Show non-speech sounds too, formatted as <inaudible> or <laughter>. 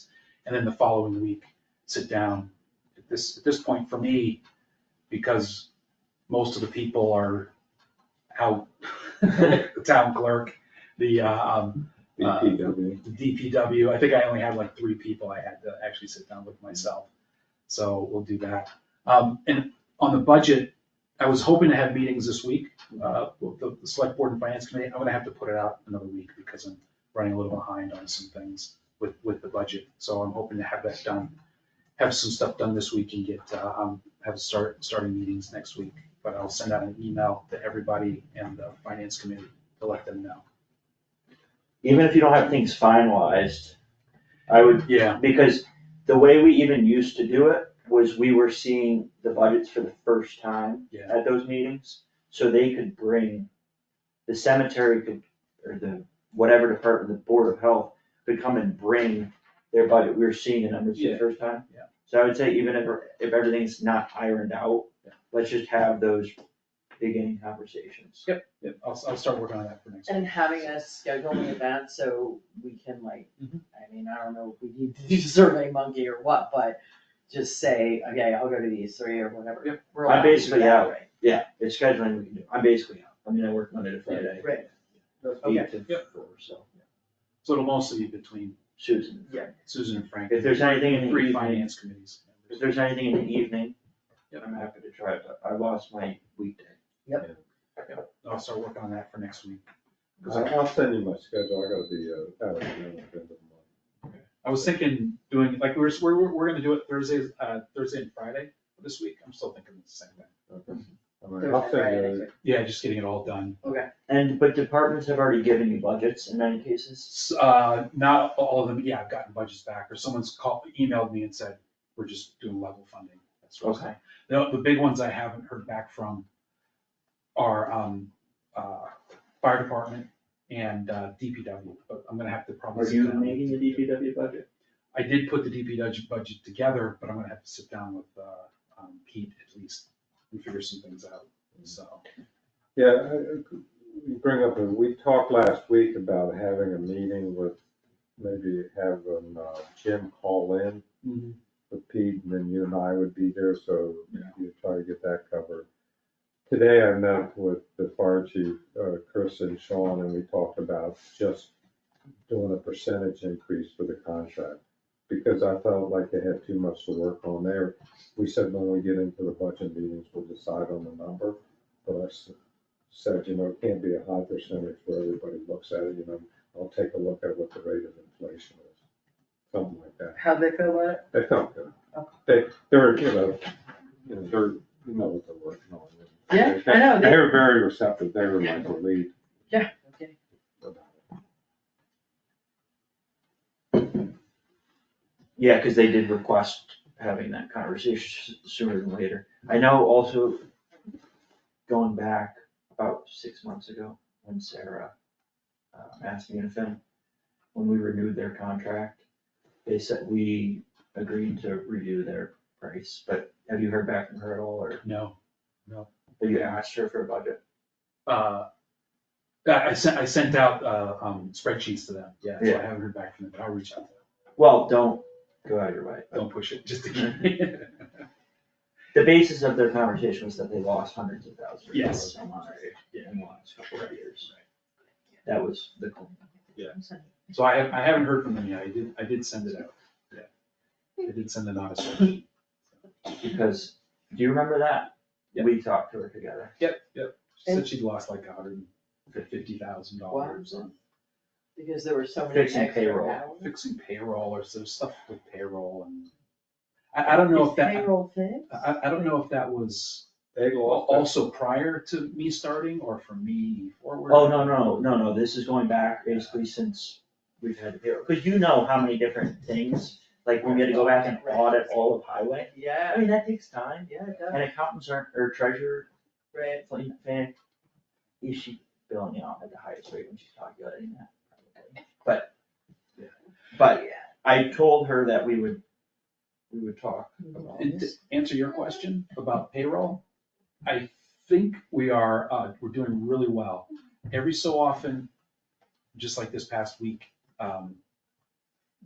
and then the following week, sit down. At this, at this point, for me, because most of the people are out, <laughs> the town clerk, the, uh, um, BPW. the DPW, I think I only had like three people I had to actually sit down with myself. So we'll do that. Um, and on the budget, I was hoping to have meetings this week, uh, with the, the select board and finance committee. I'm gonna have to put it out another week because I'm running a little behind on some things with, with the budget. So I'm hoping to have that done, have some stuff done this week and get, uh, um, have start, starting meetings next week. But I'll send out an email to everybody and the finance committee to let them know. even if you don't have things finalized, I would, Yeah, because the way we even used to do it was we were seeing the budgets for the first time Yeah. at those meetings, so they could bring, the cemetery could, or the, whatever department, the Board of Health could come and bring their budget, we were seeing the numbers for Yeah. the first time. Yeah. So I would say even if, if everything's not ironed out, Yeah. let's just have those beginning conversations. Yep, I'll, I'll start working on that for next week. And having us schedule an event so we can like, Mhm. I mean, I don't know if we need to do Survey Monkey or what, but just say, okay, I'll go to these three or whatever. Yep. We're allowed I to do basically, that, yeah. right? Yeah, it's scheduling, we can do, I'm basically out, I mean, I work Monday to Friday. Right, eight Okay. to Yep. four, so, So it'll mostly be between Susan, Susan and Frank. if there's anything in the Three evening, finance committees. if there's anything in the evening, Yep. I'm happy to try it, but I lost my weekday. I'll start working on that for next week. 'Cause I- I'll send you my schedule, I gotta be, uh, out of town at the end of the month. I was thinking doing, like, we're, we're, we're- we're gonna do it Thursday, uh, Thursday and Friday this week. I'm still thinking the same thing. Okay. All right, I'll Thursday, send you, Yeah, just getting it all done. And, but departments have already given you budgets in many cases, S- Uh, not all of them, yeah, I've gotten budgets back or someone's called, emailed me and said, we're just doing level funding. That's what I'm saying. okay, The, the big ones I haven't heard back from are, um, uh, fire department and, uh, DPW, but I'm gonna have to probably. are sit you down and- making the DPW budget? I did put the DPW budget together, but I'm gonna have to sit down with, uh, um, Pete at least and figure some things out, so. Mm-hmm. yeah, I- I- you bring up, uh, we talked last week about having a meeting with, maybe having, uh, Jim call in with Pete, and then you and I would be there, so Yeah. you try to get that covered. Today I met with the fire chief, uh, Chris and Sean, and we talked about just doing a percentage increase for the contract. Because I felt like they had too much to work on there. We said when we get into the budget meetings, we'll decide on the number. But I s- said, you know, it can't be a high percentage where everybody looks at it, you know, I'll take a look at what the rate of inflation is. Something like that. how'd they feel about it? They felt good. They, they were, you know, you know, they're, you know what they're working on. Yeah, I know, They they- were very receptive. They were like the lead. Yeah, okay. about it. Yeah, cause they did request having that conversation s- sooner than later, I know also, going back about six months ago, when Sarah, uh, asked me and Finn, when we renewed their contract, they said we agreed to review their price, but have you heard back from her at all, or No, have you asked her for a budget? uh, I, I sent, I sent out, uh, um, spreadsheets to them, yeah, so Yeah. I haven't heard back from them, but I'll reach out to them. Well, don't go out of your way. Don't push it, <laughs> just to Mm-hmm. keep. The basis of their conversation was that they lost hundreds of thousands of Yes. dollars on Monterey in the last couple of years. That was the goal. So I have, I haven't heard from them yet, I did, I did send it out, yeah. I did send it out. as well. because, do you remember that? Yeah. We talked to her together. Yep, yep, she said she'd lost like a hundred and fifty thousand dollars on Because there were so many Fixing extra payroll. hours. fixing payroll or some stuff with payroll and, I, I don't know if that. Payroll thing? I, I don't know if that was They lost. that- also prior to me starting or from me forward. Oh, no, no, no, no, this is going back basically since we've had, because you know how many different things, like we gotta go back and audit all of highway. I Yeah, mean, that takes time, yeah, it does, and accountants aren't, or treasurer, right, like, fan, is she billing out at the highest rate when she's calculating that? Probably. But, Yeah. but I told her that we would, we would talk about And to answer your question about payroll, I think we are, uh, we're doing really well. Every so often, just like this past week, um,